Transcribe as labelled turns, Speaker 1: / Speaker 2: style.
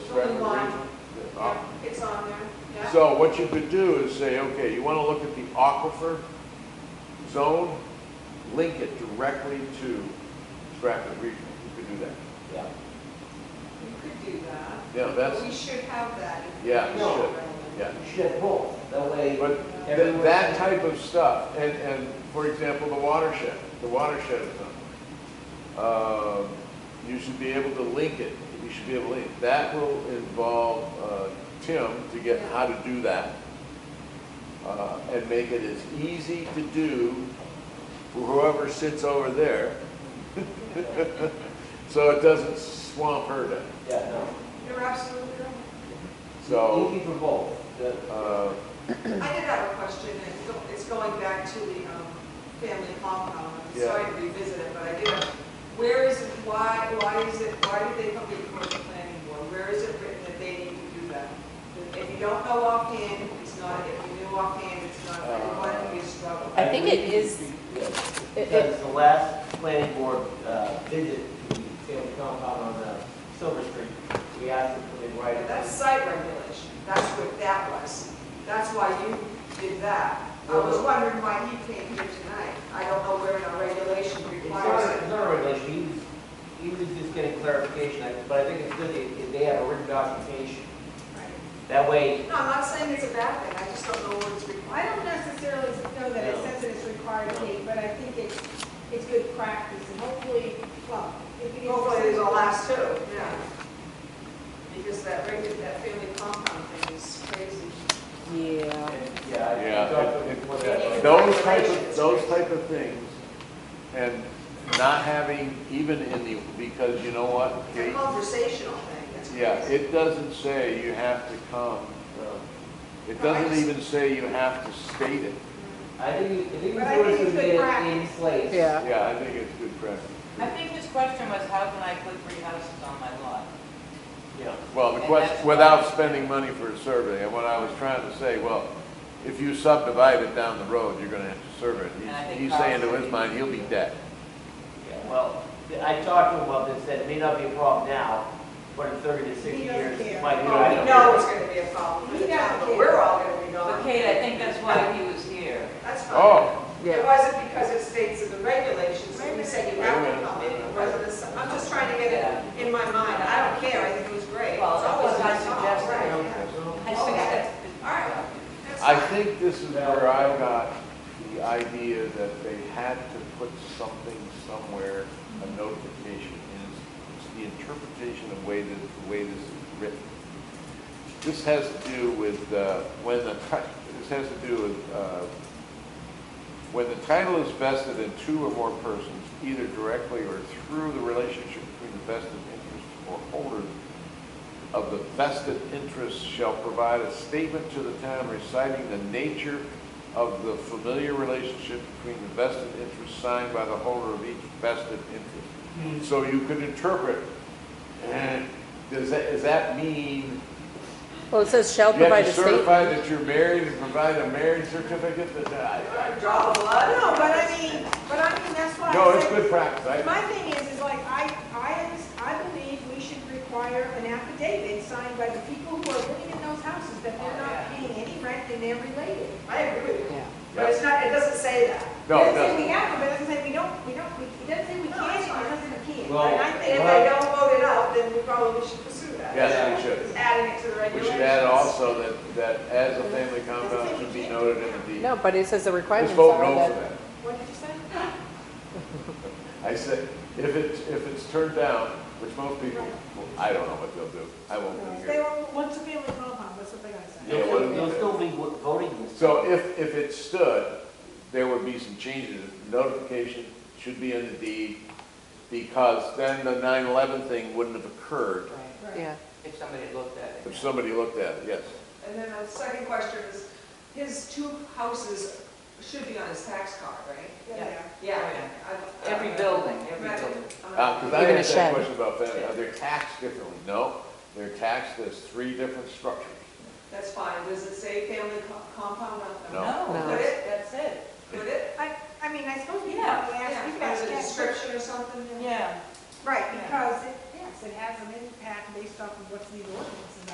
Speaker 1: Right, the
Speaker 2: Why?
Speaker 1: region, the
Speaker 2: Yeah,
Speaker 1: aqu-
Speaker 2: It's on there, yeah.
Speaker 1: Um, So what you could do is say, okay, you want to look at the aquifer zone, link it directly to Stratford Regional. You could do that.
Speaker 3: Yeah.
Speaker 2: You could do that.
Speaker 1: Yeah, that's,
Speaker 2: We should have that. if
Speaker 1: Yeah,
Speaker 3: we
Speaker 2: it's
Speaker 3: should.
Speaker 2: relevant.
Speaker 1: yeah.
Speaker 3: You should have both, that way.
Speaker 1: But th- that type of stuff, and, and for example, the watershed, the watershed is on. Um, You should be able to link it, you should be able to link, it. that will involve uh, Tim to get how to do that. uh, And make it as easy to do for whoever sits over there, so it doesn't swamp her down.
Speaker 3: Yeah, no.
Speaker 2: You're absolutely right.
Speaker 1: So,
Speaker 3: Easy for both. The-
Speaker 1: uh,
Speaker 2: I did have a question, and it's go- it's going back to the um, family compound. I'm
Speaker 1: Yeah.
Speaker 2: sorry to revisit it, but I did. have- Where is, it? why, why is it, why did they come before the planning board? Where is it written that they need to do that? If you don't know offhand, it's not, if you knew offhand, it's not,
Speaker 1: Uh,
Speaker 2: why do you struggle?
Speaker 4: I think it is-
Speaker 3: Yes.
Speaker 4: It-
Speaker 3: Because
Speaker 4: it-
Speaker 3: the last planning board uh, visit to the family compound on uh, Silver Street, we asked them to write it.
Speaker 2: That's site regulation, that's what that was. That's why you did that. I was wondering why he came here tonight. I don't know where in our regulation
Speaker 3: It's not,
Speaker 2: requires
Speaker 3: it's
Speaker 2: it.
Speaker 3: not a regulation, he was, he was just getting clarification, I- but I think it's good if they have a written documentation.
Speaker 2: Right.
Speaker 3: That way,
Speaker 2: No, I'm not saying it's a bad thing, I just don't know where it's required.
Speaker 5: I don't necessarily know that it says it is required to be, but I think it's, it's good practice, and hopefully, well, if it is.
Speaker 2: Hopefully it'll last too, yeah. Because that regu, that family compound thing is crazy.
Speaker 4: Yeah.
Speaker 3: and, yeah. I-
Speaker 1: Yeah,
Speaker 3: I talked
Speaker 1: it-
Speaker 3: to
Speaker 1: it-
Speaker 3: what that was.
Speaker 1: Those type of, those type of things, and not having even in the, because you know what?
Speaker 2: It's a
Speaker 1: Kate?
Speaker 2: conversational thing, that's crazy.
Speaker 1: Yeah, it doesn't say you have to come, it doesn't even say you have to state it.
Speaker 3: I think, you- I think
Speaker 5: But I
Speaker 3: it's
Speaker 5: think
Speaker 3: good
Speaker 5: it's
Speaker 3: to
Speaker 5: good
Speaker 3: get it in
Speaker 5: practice.
Speaker 3: place.
Speaker 4: Yeah.
Speaker 1: Yeah, I think it's good practice.
Speaker 6: I think his question was, how can I put three houses on my lot?
Speaker 3: Yeah.
Speaker 1: Well, the
Speaker 6: And
Speaker 1: question,
Speaker 6: that's-
Speaker 1: without spending money for a survey, and what I was trying to say, well, if you subdivide it down the road, you're gonna have to survey it.
Speaker 6: And I think
Speaker 1: He's- He's saying to
Speaker 6: Carl's-
Speaker 1: his mind, he'll be dead.
Speaker 3: Yeah, Well, I talked to him about this, said it may not be a problem now, but in thirty to sixty
Speaker 5: He doesn't
Speaker 3: years,
Speaker 5: care.
Speaker 3: it might be.
Speaker 2: Well, we know it's gonna be a problem for the
Speaker 5: Yeah.
Speaker 2: town, but we're all gonna be
Speaker 6: But
Speaker 2: gone.
Speaker 6: Kate, I think that's why he was here.
Speaker 2: That's fine.
Speaker 1: Oh,
Speaker 2: It
Speaker 4: Yeah.
Speaker 2: wasn't because it states in the regulations, that we say you have to come in, it wasn't, a- I'm just trying to get it in my mind, I don't care, I think it was great.
Speaker 6: Well,
Speaker 2: It's always
Speaker 6: that was my
Speaker 2: nice to talk,
Speaker 6: suggestion.
Speaker 2: right, yeah.
Speaker 6: I think that's-
Speaker 2: All right. That's
Speaker 1: I
Speaker 2: fine.
Speaker 1: think this is where I got the idea that they had to put something somewhere, a notification, and it's it's the interpretation of way that, the way this is written. This has to do with, uh, when the, ti- this has to do with, uh, when the title is vested in two or more persons, either directly or through the relationship between the vested interests or holders of the vested interests shall provide a statement to the town reciting the nature of the familiar relationship between the vested interests signed by the holder of each vested interest. So you could interpret, eh, does that, does that mean
Speaker 4: Well, it says
Speaker 1: you
Speaker 4: shall
Speaker 1: have
Speaker 4: provide
Speaker 1: to
Speaker 4: a statement.
Speaker 1: certify that you're married and provide a marriage certificate that, I-
Speaker 2: Draw the blood,
Speaker 5: No, but I mean, but I mean, that's what I
Speaker 1: no, it's
Speaker 5: said.
Speaker 1: good practice. I-
Speaker 5: My thing is, is like, I, I, I believe we should require an affidavit signed by the people who are living in those houses that they're not
Speaker 2: Oh,
Speaker 5: paying any rent and they're related.
Speaker 2: I agree with you,
Speaker 4: Yeah.
Speaker 2: but it's not, it doesn't say that.
Speaker 1: No,
Speaker 5: It doesn't say
Speaker 1: no,
Speaker 5: we have to, but it doesn't say we don't, we don't, we- it doesn't say we
Speaker 2: No,
Speaker 5: can't,
Speaker 2: that's
Speaker 5: it
Speaker 2: fine.
Speaker 5: doesn't say we can't.
Speaker 3: Well,
Speaker 5: And I
Speaker 2: And
Speaker 5: think
Speaker 2: if
Speaker 3: Well-
Speaker 2: they don't vote it out, then we probably should pursue that.
Speaker 1: yes, we should.
Speaker 2: Adding it to the
Speaker 1: We
Speaker 2: regulations.
Speaker 1: should add also that, that as a family compound should be noted in the deed.
Speaker 4: No, but it says the
Speaker 1: Just
Speaker 4: requirements
Speaker 1: vote
Speaker 4: are
Speaker 1: no for
Speaker 4: that,
Speaker 1: that.
Speaker 5: What did you say?
Speaker 1: I said, if it's, if it's turned down, which most people, well, I don't know what they'll do. I won't be
Speaker 5: They
Speaker 1: here.
Speaker 5: were, once a family compound, that's what they gotta say.
Speaker 1: Yeah,
Speaker 3: You'll
Speaker 1: what do
Speaker 3: still,
Speaker 1: we
Speaker 3: you'll
Speaker 1: do?
Speaker 3: still be wo- voting this.
Speaker 1: So if, if it stood, there would be some changes. Notification should be in the deed because then the 9/11 thing wouldn't have occurred
Speaker 5: Right.
Speaker 4: yeah.
Speaker 6: If somebody had looked at
Speaker 1: if
Speaker 6: it.
Speaker 1: somebody looked at it, yes.
Speaker 2: And then the second question is, his two houses should be on his tax card, right?
Speaker 5: Yeah.
Speaker 6: Yeah.
Speaker 2: Yeah. I- I-
Speaker 6: Every building, every
Speaker 2: Right. Uh-huh.
Speaker 6: building.
Speaker 1: Because Uh, I
Speaker 4: Even a
Speaker 1: asked that
Speaker 4: shed.
Speaker 1: question about that. Are they taxed differently? No, they're taxed as three different structures.
Speaker 2: That's fine, does it say family co- compound on
Speaker 1: No.
Speaker 4: No.
Speaker 6: No, that's it.
Speaker 2: Would it?
Speaker 5: I, I mean, I suppose we
Speaker 6: Yeah,
Speaker 5: have to ask,
Speaker 2: Yeah,
Speaker 5: we can ask
Speaker 2: There's a
Speaker 5: that.
Speaker 2: description or something?
Speaker 6: Yeah.
Speaker 5: Right, because, it- yes, It has an impact based off of what's in the ordinance and